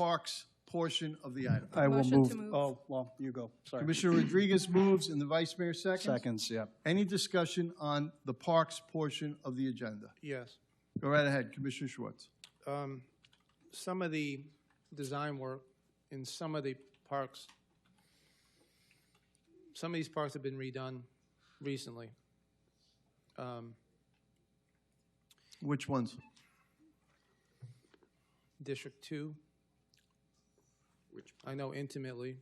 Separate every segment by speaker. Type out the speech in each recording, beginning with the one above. Speaker 1: Parks portion of the item.
Speaker 2: I will
Speaker 3: Motion to
Speaker 2: move,
Speaker 3: move.
Speaker 2: oh, well, you go, sorry.
Speaker 1: Commissioner Rodriguez moves and the Vice Mayor seconds.
Speaker 2: Seconds, yeah.
Speaker 1: Any discussion on the Parks portion of the agenda?
Speaker 4: Yes.
Speaker 1: Go right ahead, Commissioner Schwartz.
Speaker 4: Um, Some of the design work in some of the parks, some of these parks have been redone recently. Um,
Speaker 1: Which ones?
Speaker 4: District Two. Which? I know intimately.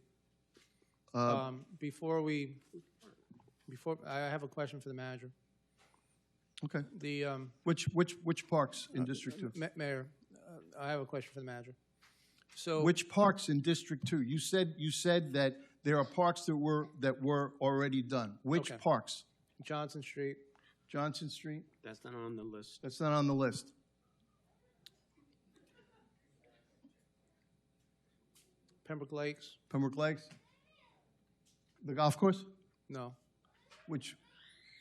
Speaker 1: Uh,
Speaker 4: Um, Before we, before, I have a question for the manager.
Speaker 1: Okay,
Speaker 4: The, um,
Speaker 1: which, which, which parks in District Two?
Speaker 4: Ma- Mayor, uh, I have a question for the manager. So.
Speaker 1: Which parks in District Two? You said, you said that there are parks that were, that were already done. Which
Speaker 4: Okay.
Speaker 1: parks?
Speaker 4: Johnson Street,
Speaker 1: Johnson Street?
Speaker 5: That's not on the list.
Speaker 1: That's not on the list.
Speaker 4: Pembroke Lakes,
Speaker 1: Pembroke Lakes? The golf course?
Speaker 4: no.
Speaker 1: Which,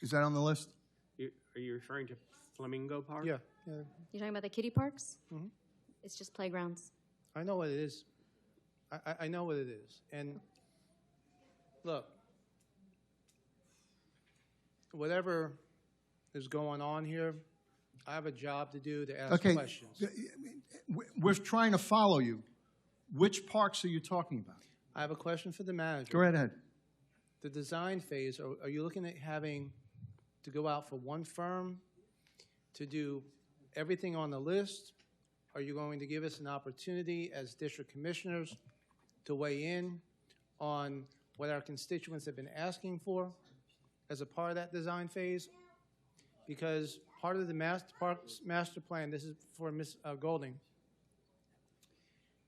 Speaker 1: is that on the list?
Speaker 5: You- Are you referring to Flamingo Park?
Speaker 4: Yeah, yeah,
Speaker 6: You're talking about the kiddie parks?
Speaker 1: Mm-hmm.
Speaker 4: Mhm.
Speaker 6: It's just playgrounds.
Speaker 4: I know what it is. I, I, I know what it is. And look, whatever is going on here, I have a job to do to ask
Speaker 1: Okay.
Speaker 4: questions.
Speaker 1: We- We're trying to follow you. Which parks are you talking about?
Speaker 4: I have a question for the
Speaker 1: Go
Speaker 4: manager.
Speaker 1: right ahead.
Speaker 4: The design phase, are, are you looking at having to go out for one firm to do everything on the list? Are you going to give us an opportunity as district commissioners to weigh in on what our constituents have been asking for as a part of that design phase? Because part of the master, parks, master plan, this is for Ms. uh, Golding,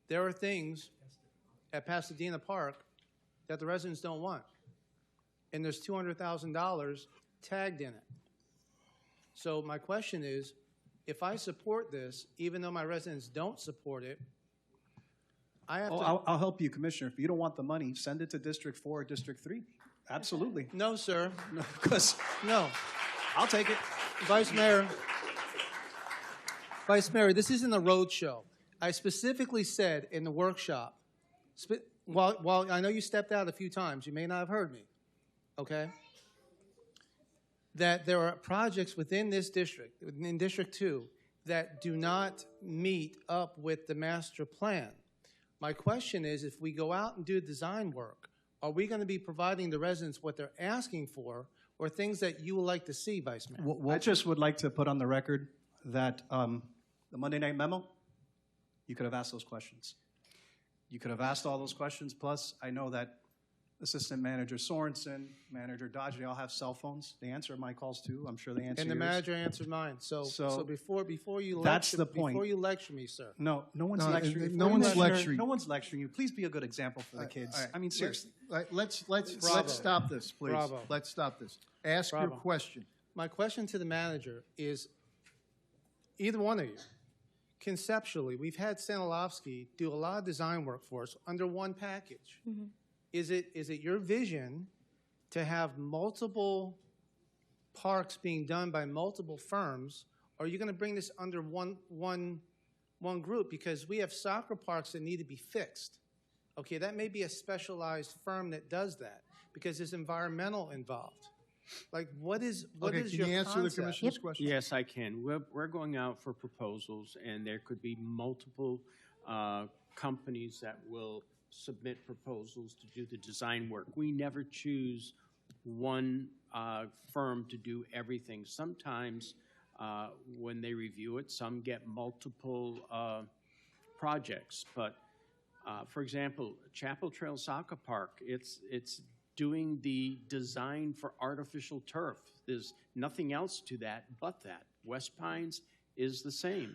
Speaker 4: there are things at Pasadena Park that the residents don't want. And there's $200,000 tagged in it. So my question is, if I support this, even though my residents don't support it, I have to.
Speaker 2: Oh, I'll, I'll help you, Commissioner. If you don't want the money, send it to District Four or District Three. Absolutely.
Speaker 4: No, sir.
Speaker 2: Because
Speaker 4: No.
Speaker 2: I'll take it.
Speaker 4: Vice Mayor. Vice Mayor, this isn't a roadshow. I specifically said in the workshop, spe- while, while I know you stepped out a few times, you may not have heard me, okay? That there are projects within this district, in District Two, that do not meet up with the master plan. My question is, if we go out and do design work, are we going to be providing the residents what they're asking for, or things that you would like to see, Vice Mayor?
Speaker 2: I just would like to put on the record that um, the Monday night memo, you could have asked those questions. You could have asked all those questions, plus I know that Assistant Manager Sorensen, Manager Dodge, they all have cell phones. They answer my calls too. I'm sure they answer
Speaker 4: And the
Speaker 2: yours.
Speaker 4: manager answered mine, so,
Speaker 2: So-
Speaker 4: so before, before you
Speaker 2: That's
Speaker 4: lecture,
Speaker 2: the point.
Speaker 4: before you lecture me, sir.
Speaker 2: No, no one's uh,
Speaker 1: No, and-
Speaker 2: lecturing.
Speaker 1: and
Speaker 2: you.
Speaker 1: no one's
Speaker 2: Commissioner,
Speaker 1: lecturing.
Speaker 2: No one's lecturing you. Please be a good example for the kids.
Speaker 1: All right,
Speaker 2: I mean,
Speaker 1: let's-
Speaker 2: seriously.
Speaker 1: let- Let's, let's,
Speaker 4: Bravo.
Speaker 1: let's stop this, please.
Speaker 4: Bravo.
Speaker 1: Let's stop this. Ask your
Speaker 4: Bravo.
Speaker 1: question.
Speaker 4: My question to the manager is, either one of you, conceptually, we've had Sanilovsky do a lot of design work for us under one package. Is it, is it your vision to have multiple parks being done by multiple firms? Or are you gonna bring this under one, one, one group? Because we have soccer parks that need to be fixed. Okay, that may be a specialized firm that does that, because there's environmental involved. Like, what is, what
Speaker 1: Okay,
Speaker 4: is
Speaker 1: can
Speaker 4: your
Speaker 1: you answer the
Speaker 4: concept?
Speaker 1: commissioner's question?
Speaker 5: Yes, I can. We're, we're going out for proposals, and there could be multiple uh, companies that will submit proposals to do the design work. We never choose one uh, firm to do everything. Sometimes, uh, when they review it, some get multiple uh, projects, but Uh, for example, Chapel Trail Soccer Park, it's, it's doing the design for artificial turf. There's nothing else to that but that. West Pines is the same.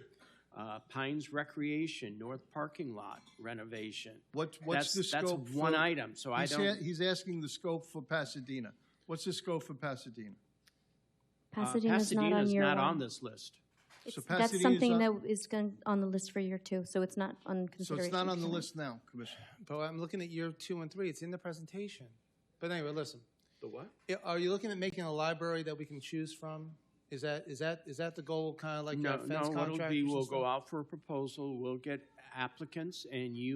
Speaker 5: Uh, Pines Recreation, North Parking Lot renovation.
Speaker 1: What, what's the
Speaker 5: That's-
Speaker 1: scope?
Speaker 5: That's one
Speaker 1: for-
Speaker 5: item, so I
Speaker 1: he's a-
Speaker 5: don't.
Speaker 1: He's asking the scope for Pasadena. What's the scope for Pasadena?
Speaker 5: uh,
Speaker 6: Pasadena's not on
Speaker 5: Pasadena's
Speaker 6: your.
Speaker 5: not
Speaker 6: um,
Speaker 5: on this list.
Speaker 6: it's-
Speaker 1: So
Speaker 6: That's
Speaker 1: Pasadena's
Speaker 6: something that
Speaker 1: on-
Speaker 6: is gon- on the list for year two, so it's not on
Speaker 1: So
Speaker 6: consideration.
Speaker 1: it's not on the
Speaker 6: tonight.
Speaker 1: list now, Commissioner.
Speaker 4: But I'm looking at year two and three. It's in the presentation. But anyway, listen.
Speaker 5: The what?
Speaker 4: I- Are you looking at making a library that we can choose from? Is that, is that, is that the goal, kind of like
Speaker 5: No,
Speaker 4: that fence
Speaker 5: no,
Speaker 4: contract?
Speaker 5: what'll be, we'll go out for a proposal, we'll get applicants, and you